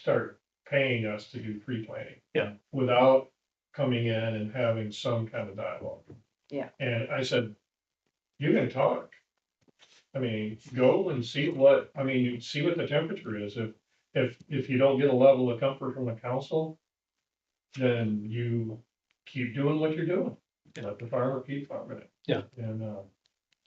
start paying us to do pre-planning. Yeah. Without coming in and having some kind of dialogue. Yeah. And I said, you can talk. I mean, go and see what, I mean, you see what the temperature is. If, if, if you don't get a level of comfort from the council, then you keep doing what you're doing. Let the farmer keep farming it. Yeah. And, uh,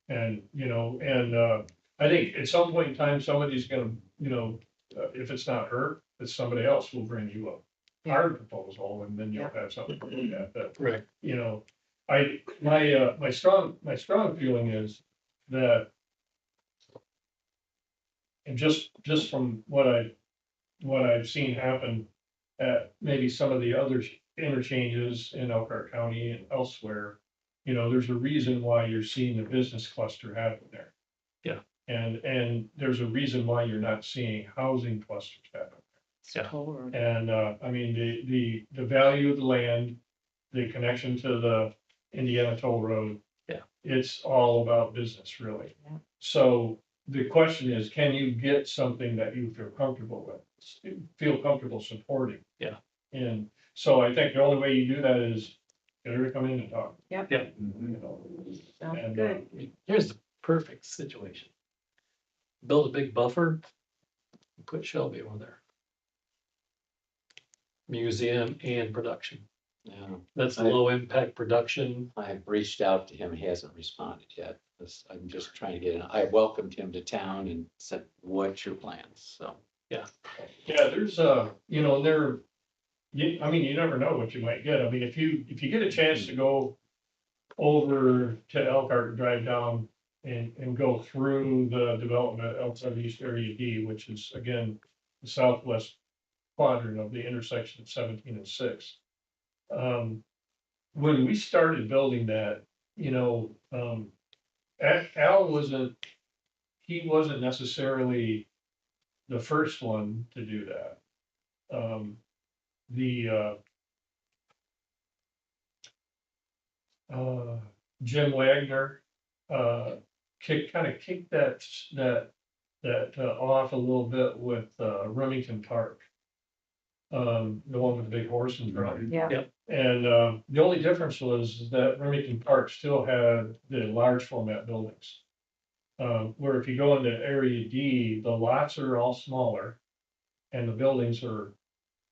and, you know, and, uh, I think at some point in time, somebody's gonna, you know, uh, if it's not her, it's somebody else will bring you up. Our proposal, and then you'll have something to look at, but Right. you know, I, my, uh, my strong, my strong feeling is that and just, just from what I, what I've seen happen at maybe some of the other interchanges in Elkhart County and elsewhere, you know, there's a reason why you're seeing the business cluster happen there. Yeah. And, and there's a reason why you're not seeing housing clusters happen. Yeah. Totally. And, uh, I mean, the, the, the value of the land, the connection to the Indiana Toll Road. Yeah. It's all about business, really. Yeah. So the question is, can you get something that you feel comfortable with, feel comfortable supporting? Yeah. And so I think the only way you do that is get her to come in and talk. Yep. Yeah. You know, Sounds and, uh, good. Here's the perfect situation. Build a big buffer. and Put Shelby over there. Museum and production. Yeah, That's I- low impact production. Um, I have reached out to him. He hasn't responded yet. This- I'm just trying to get in. I welcomed him to town and said, what's your plans? So. Yeah, there's uh you know, there, you, I mean, you never know what you might get. I mean, if you, if you get a chance to go over to Elkhart and drive down and, and go through the development outside of East Area D, which is again, the southwest quadrant of the intersection of seventeen and six. Um, when we started building that, you know, um, Al- Al wasn't, he wasn't necessarily the first one to do that. Um, the, uh, uh, Jim Wagner, uh, kick, kind of kicked that, that, that uh, off a little bit with, uh, Remington Park. Um, the one with the big horse and drum. Yeah. And uh, the only difference was that Remington Park still had the large format buildings. Uh, Where if you go into Area D, the lots are all smaller and the buildings are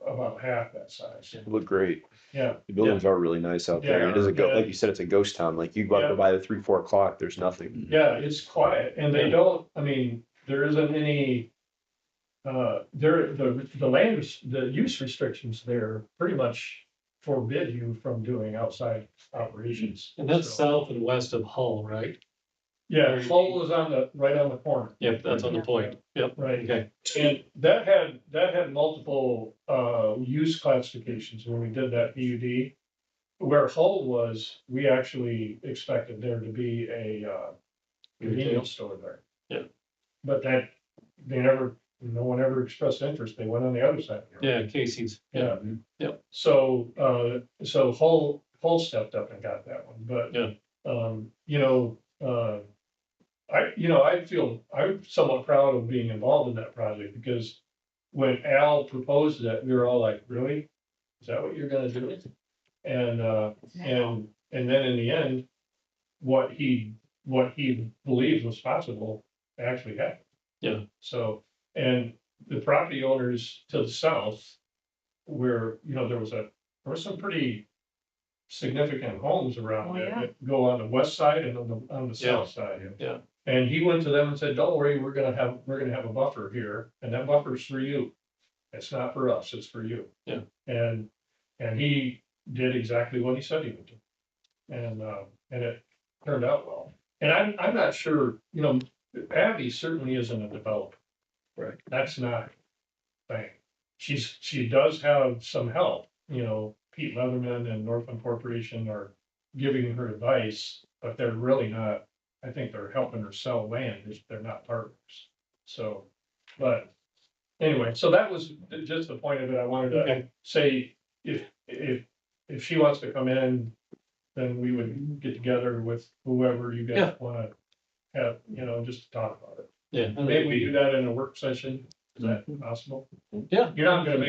about half that size. Yeah. Look great. Yeah, The buildings are really nice out there. Yeah, It doesn't go, yeah. like you said, it's a ghost town. Like you Yeah. go by the three, four o'clock, there's nothing. yeah, it's quiet and they Yeah. don't, I mean, there isn't any. uh, There, the, the land, res- the use restrictions there pretty much forbid you from doing outside operations. And that's So- south and west of Hull, right? Yeah, Hull is on the, right on the corner. Yep, that's on the point. Yep. Right. Okay. And that had, that had multiple, uh, use classifications when we did that PUD. Where Hull was, we actually expected there to be a, uh, convenience store there. Yeah. But that, they never, no one ever expressed interest. They went on the other side. Yeah, Casey's. Yeah. Yep. So, uh, so Hull, Hull stepped up and got that one, but. Yeah. Um, you know, uh, I, you know, I feel, I'm somewhat proud of being involved in that project because when Al proposed that, we were all like, really? Is that what you're gonna do? And, uh, and, and then in the end, what he, what he believed was possible actually happened. Yeah. So, and the property owners to the south where, you know, there was a, there was some pretty significant homes Oh, around it yeah. that go on the west side and on the, on the Yeah. south side. Yeah. And he went to them and said, don't worry, we're gonna have, we're gonna have a buffer here, and that buffer's for you. It's not for us, it's for you. Yeah. And, and he did exactly what he said he would do. And, uh, and it turned out well. And I'm, I'm not sure, you know, Abby certainly isn't a developer. Right. That's not her thing. She's, she does have some help, you know, Pete Leatherman and Northland Corporation are giving her advice, but they're really not, I think they're helping her sell land, just they're not partners. So, but anyway, so that was just the point of it. I wanted to Okay. say, if, if, if she wants to come in, then we would get together with whoever you guys Yeah. wanna have, you know, just to talk about it. Yeah. Maybe we do that in a work session. Is that possible? Mhm. Yeah. You're not gonna make